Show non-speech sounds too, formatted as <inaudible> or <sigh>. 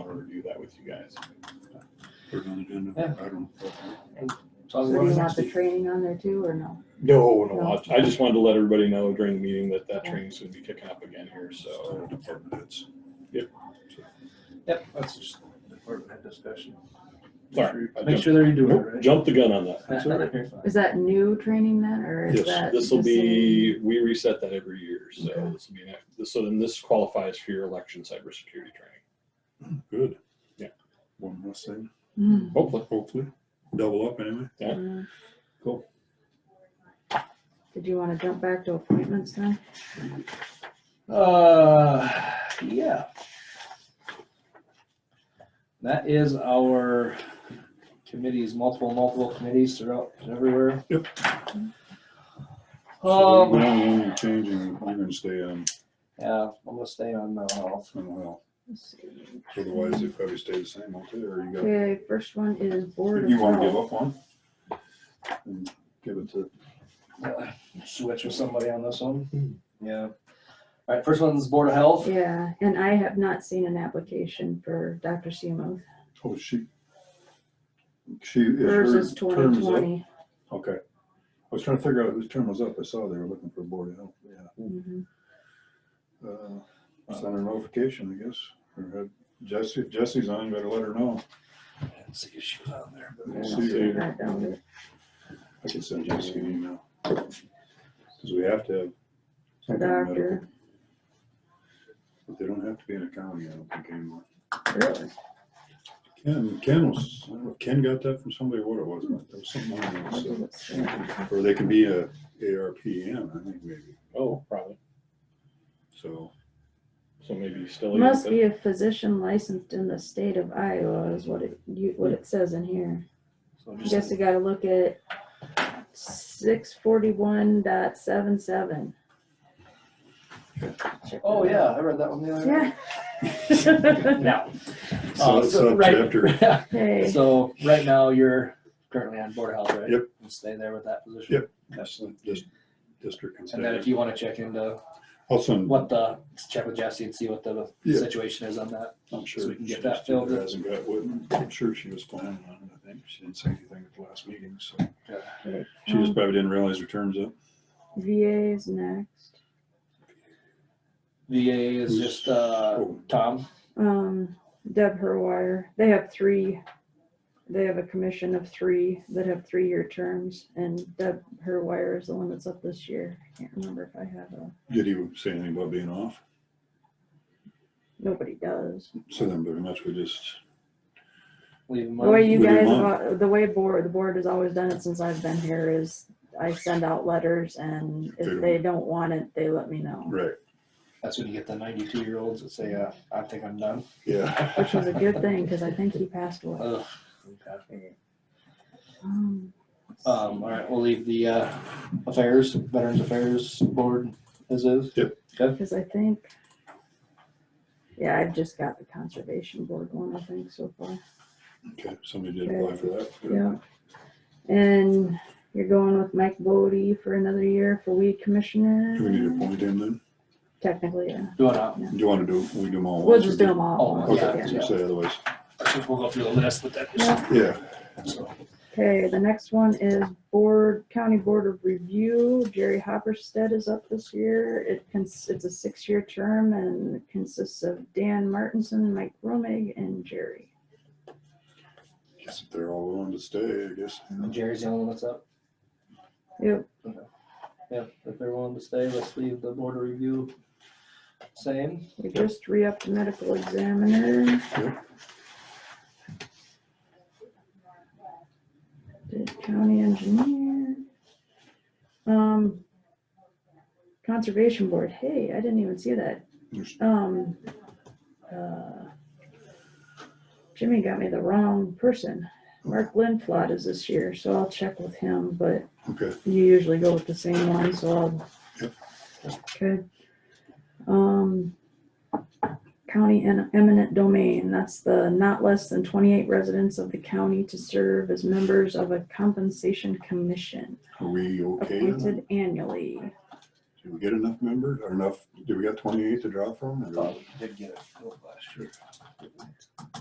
review that with you guys. Put it on the agenda. Yeah. I don't. So So I'm do you going want next the week. training on there too, or no? No, no, I I just wanted to let everybody know during the meeting that that training's gonna be kicking up again here, so. So department heads. Yep. Yep. That's just department head discussion. Sorry. I Make jumped- sure they're doing it nope, right. Jumped the gun on that. Is that new training then, or is Yes, that? This will the same? be, we reset that every year, so Okay. this will be, an act- so then this qualifies for your election cybersecurity training, Good. Yeah. One less thing, Hmm. hopefully. hopefully. Double up anyway. Yeah. Cool. Did you want to jump back to appointments then? Uh, yeah. That is our committees, multiple, multiple committees throughout everywhere. Yep. Oh, So Um, we're only changing, I'm gonna stay um, on yeah, I'm gonna stay on uh, mental health. mental health. Let's see. Otherwise, they probably stay the same, okay, or you got, Okay, first one is Board of you wanna give Health. up on? And Give it to, Switch with somebody on this Hmm. one. Yeah. All right, first one's Board of Health. Yeah, and I have not seen an application for Dr. Seymour. oh, she. She. is her Hers is term twenty is up? twenty. Okay. I was trying to figure out whose term was up. I saw they were looking for board of health, yeah. Mm-hmm. Uh, Send a notification, I guess. Or had Jesse, if Jesse's on, you better let her know. Let's See if she was on there. I didn't Yeah, see see her. that down. I can send Jesse an email. Because we have to have. some kind of medical- Doctor, But they don't have to be in a county, I don't think anymore. really? Ken, Ken was, I don't know if Ken got that from somebody, or what it was, but there was something on there. What does so- it say? Or they can be a ARPN, I think maybe. Oh, probably. So So maybe still. even Must if- be a physician licensed in the state of Iowa is what it, you, what it says in here. So I just- guess you gotta look at six forty-one dot seven seven. Oh, yeah, I read that one the other day. Yeah. Now. So uh, it's up right- chapter. Yeah, <laughs> Hey, <laughs> So right now, you're currently on Board of Health, right? Yep. And stay there with that position. Yep. that's the dis- district. And then if you want to check into I'll send what the, check with Jesse and see what the Yeah. situation is on that. I'm sure. So we can get she that just filled in. Hasn't got, one. I'm sure she was planning on it, I think. She didn't say anything at the last meeting, so. Yeah. She Mm-hmm. just probably didn't realize her term's up. VA um, is next. VA is Who's- just, uh, Oh, Tom. Um, Deb Herwire, they have three, they have a commission of three that have three-year terms. And Deb Herwire is the one that's up this year. I Can't remember if I have a, Did he say anything about being off? nobody does. So then pretty much we just, Leave him The way on. you We do guys, not. have- the way board, the board has always done it since I've been here is I send out letters and They if don't- they don't want it, they let me know, right, That's when you get the ninety-two year olds that say, uh, I think I'm done. yeah. <laughs> which is a good thing because I think he passed away. Ugh. Okay. Um, let's Um, all right, we'll leave the, uh, affairs, Veterans Affairs Board as is. see, <gasps> Cause I think, yeah, I've just got the conservation board one, I think so far. Okay, somebody did apply for that. Yeah. And you're going with Mike Bodie for another year for Do weed we need to commissioner? appoint him then? Technically, yeah. Do it out. Do you want to do, we do them all? We'll once or just do them all. at Oh, once, Okay, yeah, yeah. as you say, otherwise, We'll go through the list with that. Yeah. yeah. Okay, the next one is Board, County Board of Review. Jerry Hopperstead is up this year. It cons, it's a six-year term and it consists of Dan Martinson, Mike Romig, and Jerry. Guess if they're all willing to stay, I guess. Jerry's the only one that's up. Yep, Yeah, if they're willing to stay, let's leave the board of review same. we just re-upped the medical examiner. Yep. The county engineer. Um, Conservation Board, hey, I didn't even see that. There's- um, uh, Jimmy got me the wrong person. Mark Lindflot is this year, so I'll check with him, but Okay, you usually go with the same one, so I'll. Yep. Okay. Um, county and eminent domain, that's the not less than twenty-eight residents of the county to serve as members of a compensation commission are we okay? now? appointed annually. Did we get enough members or enough, did we got twenty-eight to draw from? or- Did get it.